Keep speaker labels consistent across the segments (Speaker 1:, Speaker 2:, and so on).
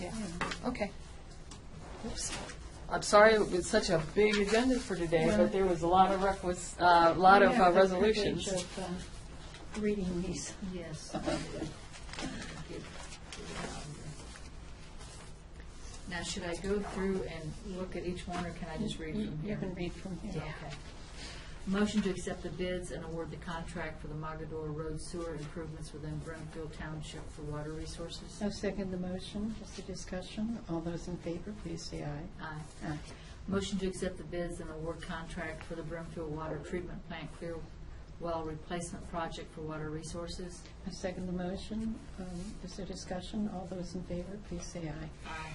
Speaker 1: Yeah, okay. Oops. I'm sorry, it was such a big agenda for today, but there was a lot of requis, uh, lot of
Speaker 2: Yeah,
Speaker 1: uh,
Speaker 2: the privilege
Speaker 1: resolutions.
Speaker 2: of, uh, Reading these.
Speaker 3: Yes. Now, should I go through and look at each one, or can I just read from here?
Speaker 2: You can read from here.
Speaker 3: Okay. Motion to accept the bids and award the contract for the Mogador Road sewer improvements within Brentfield Township for water resources.
Speaker 2: I second the motion, just a discussion. All those in favor, please say aye.
Speaker 3: Aye.
Speaker 2: Aye.
Speaker 3: Motion to accept the bids and award contract for the Brimfield Water Treatment Plant Clear Well Replacement Project for Water Resources.
Speaker 2: I second the motion, Um, just a discussion. All those in favor, please say aye.
Speaker 3: Aye.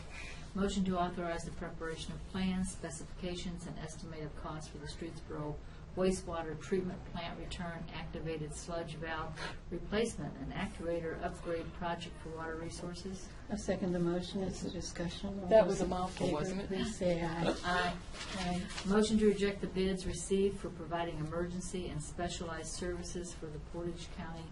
Speaker 3: Motion to authorize the preparation of plans, specifications, and estimated costs for the Streetsboro wastewater treatment plant return activated sludge valve replacement and activator upgrade project for water resources.
Speaker 2: I second the motion, it's a discussion. All
Speaker 1: That
Speaker 2: those
Speaker 1: was a
Speaker 2: in
Speaker 1: mouthful,
Speaker 2: favor,
Speaker 1: wasn't it?
Speaker 2: Please say aye.
Speaker 3: Aye.
Speaker 2: Aye.
Speaker 3: Motion to reject the bids received for providing emergency and specialized services for the Portage County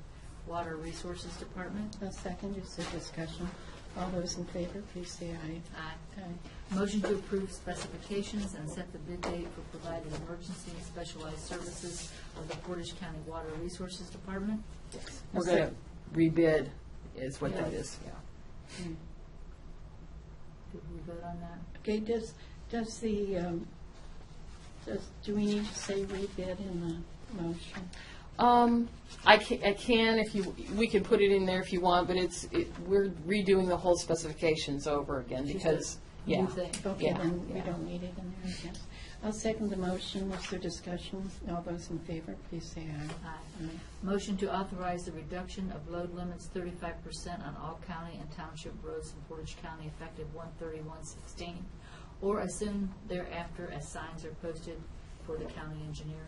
Speaker 3: Water Resources Department.
Speaker 2: I second, it's a discussion. All those in favor, please say aye.
Speaker 3: Aye.
Speaker 2: Aye.
Speaker 3: Motion to approve specifications and set the bid date for providing emergency and specialized services of the Portage County Water Resources Department.
Speaker 1: We're gonna rebid is what that
Speaker 3: Yeah.
Speaker 1: is.
Speaker 3: Did we vote on that?
Speaker 2: Okay, does, does the, um, does, do we need to say rebid in the motion?
Speaker 1: Um, I can, I can if you, we can put it in there if you want, but it's, it, we're redoing the whole specifications over again because, yeah.
Speaker 3: New thing.
Speaker 2: Okay,
Speaker 1: Yeah,
Speaker 2: then we
Speaker 1: yeah.
Speaker 2: don't need it in there, I guess. I'll second the motion, is there discussion? All those in favor, please say aye.
Speaker 3: Aye.
Speaker 2: Aye.
Speaker 3: Mm-hmm. Motion to authorize the reduction of load limits thirty-five percent on all county and township roads in Portage County effective one thirty-one sixteen, or as soon thereafter as signs are posted for the county engineer.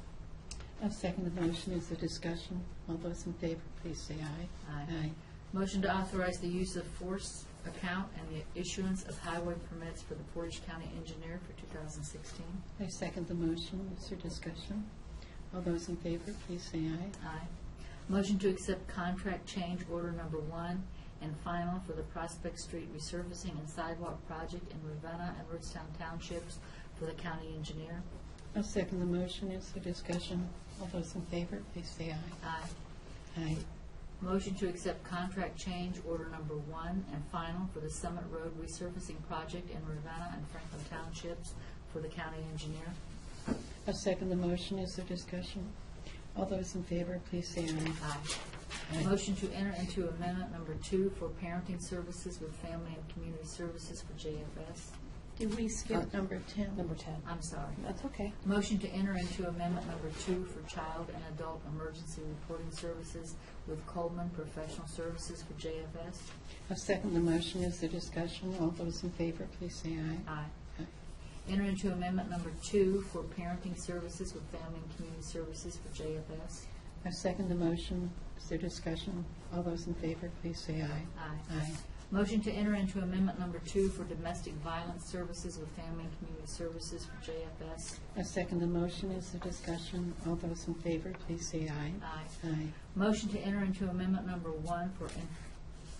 Speaker 2: I'll second the motion, is there discussion? All those in favor, please say aye.
Speaker 3: Aye.
Speaker 2: Aye.
Speaker 3: Motion to authorize the use of force account and the issuance of highway permits for the Portage County engineer for two thousand sixteen.
Speaker 2: I second the motion, is there discussion? All those in favor, please say aye.
Speaker 3: Aye. Motion to accept contract change order number one and final for the Prospect Street resurfacing and sidewalk project in Ravenna and Rootstown Townships for the county engineer.
Speaker 2: I'll second the motion, is there discussion? All those in favor, please say aye.
Speaker 3: Aye.
Speaker 2: Aye.
Speaker 3: Motion to accept contract change order number one and final for the Summit Road resurfacing project in Ravenna and Franklin Townships for the county engineer.
Speaker 2: I second the motion. Is there discussion? All those in favor, please say aye.
Speaker 3: Aye.
Speaker 2: Aye.
Speaker 3: Motion to enter into amendment number two for parenting services with Family and Community Services for JFS.
Speaker 2: Did we skip number 10?
Speaker 1: Uh, Number ten.
Speaker 3: I'm sorry.
Speaker 1: That's okay.
Speaker 3: Motion to enter into amendment number two for child and adult emergency reporting services with Coleman Professional Services for JFS.
Speaker 2: I second the motion. Is there discussion? All those in favor, please say aye.
Speaker 3: Aye. Enter into amendment number two for parenting services with Family and Community Services for JFS.
Speaker 2: I second the motion. Is there discussion? All those in favor, please say aye.
Speaker 3: Aye.
Speaker 2: Aye.
Speaker 3: Motion to enter into amendment number two for domestic violence services with Family and Community Services for JFS.
Speaker 2: I second the motion. Is there discussion? All those in favor, please say aye.
Speaker 3: Aye.
Speaker 2: Aye.
Speaker 3: Motion to enter into amendment number one for in-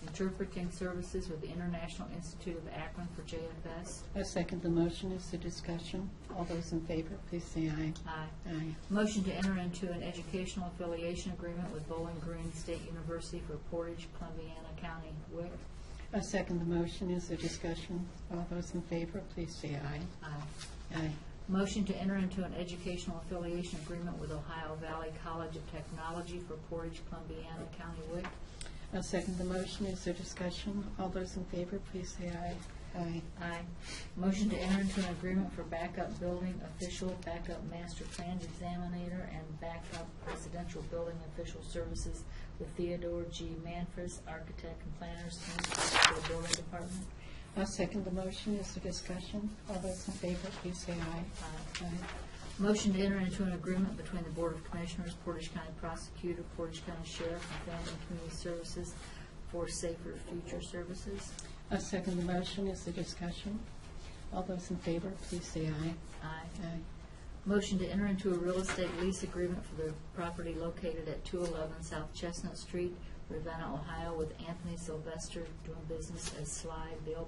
Speaker 3: interpreting services with the International Institute of Akron for JFS.
Speaker 2: I second the motion. Is there discussion? All those in favor, please say aye.
Speaker 3: Aye.
Speaker 2: Aye.
Speaker 3: Motion to enter into an educational affiliation agreement with Bowling Green State University for Portage, Columbiana County, WIC.
Speaker 2: I second the motion. Is there discussion? All those in favor, please say aye.
Speaker 3: Aye.
Speaker 2: Aye.
Speaker 3: Motion to enter into an educational affiliation agreement with Ohio Valley College of Technology for Portage, Columbiana County, WIC.
Speaker 2: I'll second the motion. Is there discussion? All those in favor, please say aye. Aye.
Speaker 3: Aye. Motion to enter into an agreement for backup building official, backup master plan examiner, and backup residential building official services with Theodore G. Manfres, architect and planners, for the building department.
Speaker 2: I'll second the motion. Is there discussion? All those in favor, please say aye.
Speaker 3: Aye.
Speaker 2: Aye.
Speaker 3: Motion to enter into an agreement between the Board of Commissioners, Portage County Prosecutor, Portage County Sheriff, and Family and Community Services for Safer Future Services.
Speaker 2: I'll second the motion. Is there discussion? All those in favor, please say aye.
Speaker 3: Aye.
Speaker 2: Aye.
Speaker 3: Motion to enter into a real estate lease agreement for the property located at 211 South Chestnut Street, Ravenna, Ohio, with Anthony Sylvester doing business as Sly Bill